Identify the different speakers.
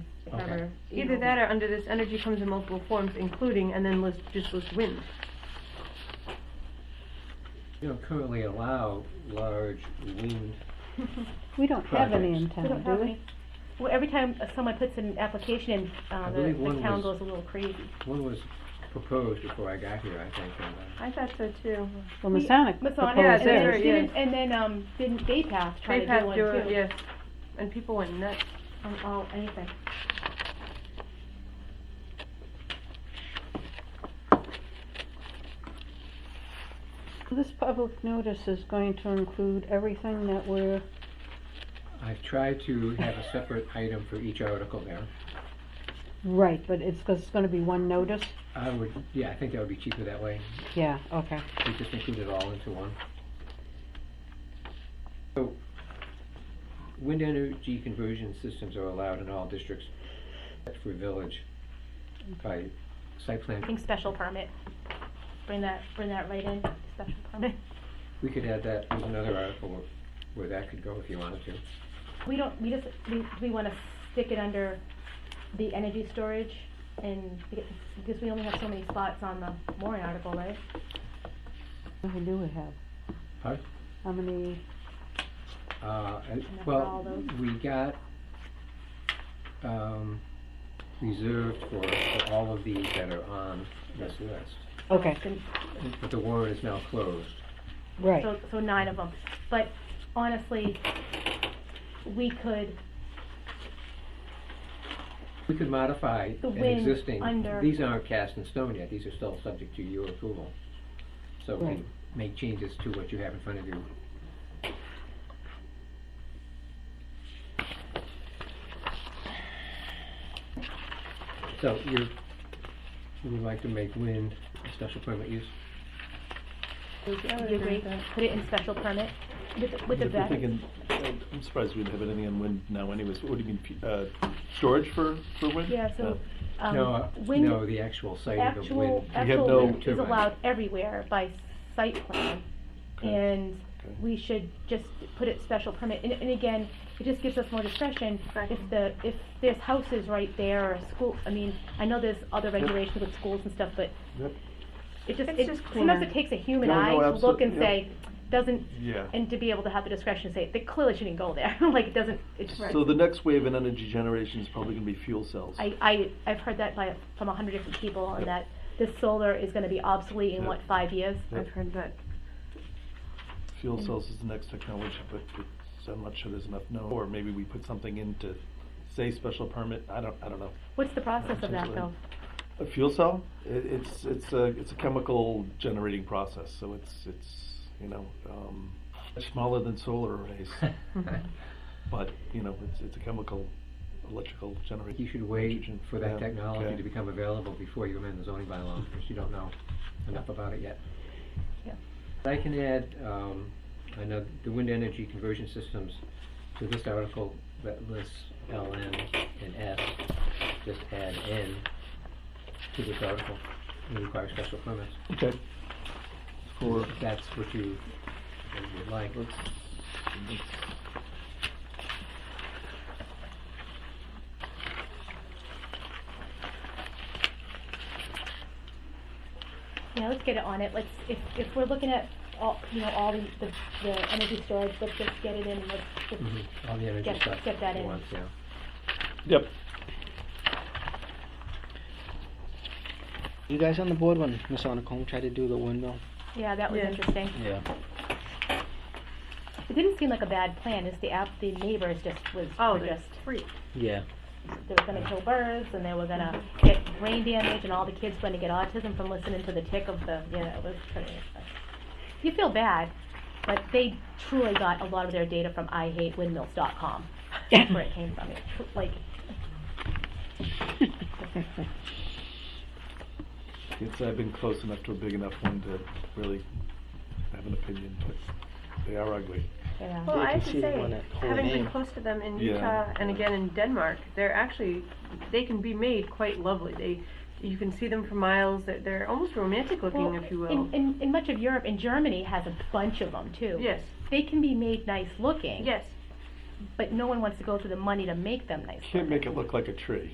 Speaker 1: whatever. you
Speaker 2: Either
Speaker 1: know.
Speaker 2: that or under this energy comes in multiple forms, including, and then list, just list wind.
Speaker 3: You don't currently allow large wind,
Speaker 1: We don't have any in
Speaker 4: We don't
Speaker 1: town, do
Speaker 4: have
Speaker 1: we?
Speaker 4: any. Well, every time uh, someone puts an application in,
Speaker 3: I
Speaker 4: uh, the,
Speaker 3: believe one
Speaker 4: the town
Speaker 3: was-
Speaker 4: goes a little crazy.
Speaker 3: one was proposed before I got here, I think, and, uh,
Speaker 2: I thought so too.
Speaker 1: Well,
Speaker 4: We-
Speaker 1: Masonic
Speaker 4: Masonic,
Speaker 1: proposed
Speaker 4: and then
Speaker 2: theirs.
Speaker 1: theirs.
Speaker 4: didn't- And then, um, didn't Bay Path try to
Speaker 2: They
Speaker 4: do
Speaker 2: passed
Speaker 4: one
Speaker 2: through
Speaker 4: too?
Speaker 2: it, yes, and people went nuts.
Speaker 4: On all, anything.
Speaker 1: This public notice is going to include everything that we're,
Speaker 3: I've tried to have a separate item for each article there.
Speaker 1: right, but it's, 'cause it's gonna be one notice?
Speaker 3: I would, yeah, I think that would be cheaper that way,
Speaker 1: Yeah, okay.
Speaker 3: we just include it all into one. So, wind energy conversion systems are allowed in all districts, except for village, by site
Speaker 4: I
Speaker 3: plan,
Speaker 4: think special permit. Bring that, bring that right in, special permit.
Speaker 3: we could add that as another article where- where that could go if you wanted to.
Speaker 4: We don't, we just, we, do we wanna stick it under the energy storage and, because, because we only have so many spots on the Warren article, right?
Speaker 1: How many do we have?
Speaker 3: Pardon?
Speaker 1: How many,
Speaker 3: Uh, and-
Speaker 4: that's all
Speaker 3: well,
Speaker 4: those?
Speaker 3: we got, um, reserved for, for all of these that are on this list.
Speaker 1: okay,
Speaker 4: Then-
Speaker 3: But the warrant is now closed.
Speaker 1: right.
Speaker 4: So, so nine of them. But honestly, we could,
Speaker 3: We could modify
Speaker 4: The
Speaker 3: an
Speaker 4: wind
Speaker 3: existing,
Speaker 4: under-
Speaker 3: these aren't cast in stone yet, these are still subject to your approval. So we
Speaker 1: Right.
Speaker 3: can make changes to what you have in front of you. So you're, you would like to make wind a special permit use?
Speaker 4: you agree, put it in special permit with, the- with the
Speaker 5: If we're
Speaker 4: vet.
Speaker 5: thinking, uh, I'm surprised we don't have anything on wind now anyways. What do you mean, pu- uh, storage for, for wind?
Speaker 4: Yeah, so, um,
Speaker 3: No, uh,
Speaker 4: wind,
Speaker 3: no, the actual site of the
Speaker 4: actual,
Speaker 3: wind.
Speaker 5: have
Speaker 4: actual
Speaker 5: no
Speaker 4: wind is
Speaker 3: turbine.
Speaker 4: allowed everywhere by site plan.
Speaker 5: Okay.
Speaker 4: And
Speaker 5: Okay.
Speaker 4: we should just put it special permit, and, and again, it just gives us more discretion.
Speaker 2: Right.
Speaker 4: If the, if there's houses right there or a school, I mean, I know there's other regulations with schools and stuff, but
Speaker 5: Yep.
Speaker 4: it just,
Speaker 2: It's
Speaker 4: it,
Speaker 2: just
Speaker 4: sometimes
Speaker 2: cleaner.
Speaker 4: it takes a human
Speaker 5: No, no,
Speaker 4: eye to look
Speaker 5: absolute-
Speaker 4: and
Speaker 5: yeah.
Speaker 4: say, doesn't,
Speaker 5: Yeah.
Speaker 4: and to be able to have the discretion to say, they clearly shouldn't go there, like, it doesn't, it's.
Speaker 5: So the next wave in energy generation is probably gonna be fuel cells.
Speaker 4: I, I, I've heard that by, from a hundred different people, and that this solar is gonna be obsolete in
Speaker 5: Yeah.
Speaker 4: what, five years?
Speaker 2: I've heard that.
Speaker 5: Fuel cells is the next technology, but it's, I'm not sure there's enough known, or maybe we put something in to say special permit, I don't, I don't know.
Speaker 4: What's the process of that
Speaker 5: Absolutely.
Speaker 4: though?
Speaker 5: A fuel cell, i it's, it's a, it's a chemical generating process, so it's, it's, you know, um, much smaller than solar arrays, but, you know, it's, it's a chemical, electrical generating.
Speaker 3: You should wait
Speaker 5: nitrogen.
Speaker 3: for that
Speaker 5: Yeah,
Speaker 3: technology
Speaker 5: okay.
Speaker 3: to become available before you amend the zoning bylaw, because you don't know enough about it yet.
Speaker 4: Yeah.
Speaker 3: I can add, um, I know the wind energy conversion systems to this article that lists LN and S, just add N to this article, and require special permits.
Speaker 5: Okay. For,
Speaker 3: If that's what you what you would like.
Speaker 5: let's, let's
Speaker 4: Yeah, let's get it on it, let's, if, if we're looking at all, you know, all the, the, the energy storage, let's just get it in and let's just.
Speaker 3: Mhm. All the energy
Speaker 4: Get-
Speaker 3: stuff.
Speaker 4: get that
Speaker 3: at
Speaker 4: in.
Speaker 3: once, yeah.
Speaker 5: Yep.
Speaker 6: You guys on the board when Masonic Home tried to do the windmill?
Speaker 4: Yeah, that was
Speaker 2: Yeah.
Speaker 4: interesting.
Speaker 6: Yeah.
Speaker 4: It didn't seem like a bad plan, it's the app, the neighbors just was,
Speaker 2: Oh,
Speaker 4: were
Speaker 2: they're
Speaker 4: just,
Speaker 2: free.
Speaker 6: Yeah.
Speaker 4: they were gonna kill birds and they were gonna get brain damage and all the kids were gonna get autism from listening to the tick of the, you know, it was pretty. You feel bad, but they truly got a lot of their data from IHateWindmills.com. That's where it came from, It tr- like,
Speaker 5: It's, I've been close enough to a big enough one to really have an opinion, but they are ugly.
Speaker 4: you know.
Speaker 2: Well,
Speaker 6: Yeah,
Speaker 2: I
Speaker 6: you can
Speaker 2: have to
Speaker 6: see the one
Speaker 2: say,
Speaker 6: that whole
Speaker 2: having been
Speaker 6: name.
Speaker 2: close to them in
Speaker 5: Yeah.
Speaker 2: Utah and again in Denmark, they're actually, they can be made quite lovely. They, you can see them for miles, they're, they're almost romantic looking,
Speaker 4: Well,
Speaker 2: if you will.
Speaker 4: In, in, in much of Europe, and Germany has a bunch of them too.
Speaker 2: Yes,
Speaker 4: They can be made nice looking.
Speaker 2: yes.
Speaker 4: But no one wants to go through the money to make them nice.
Speaker 5: Can't make it look like a tree.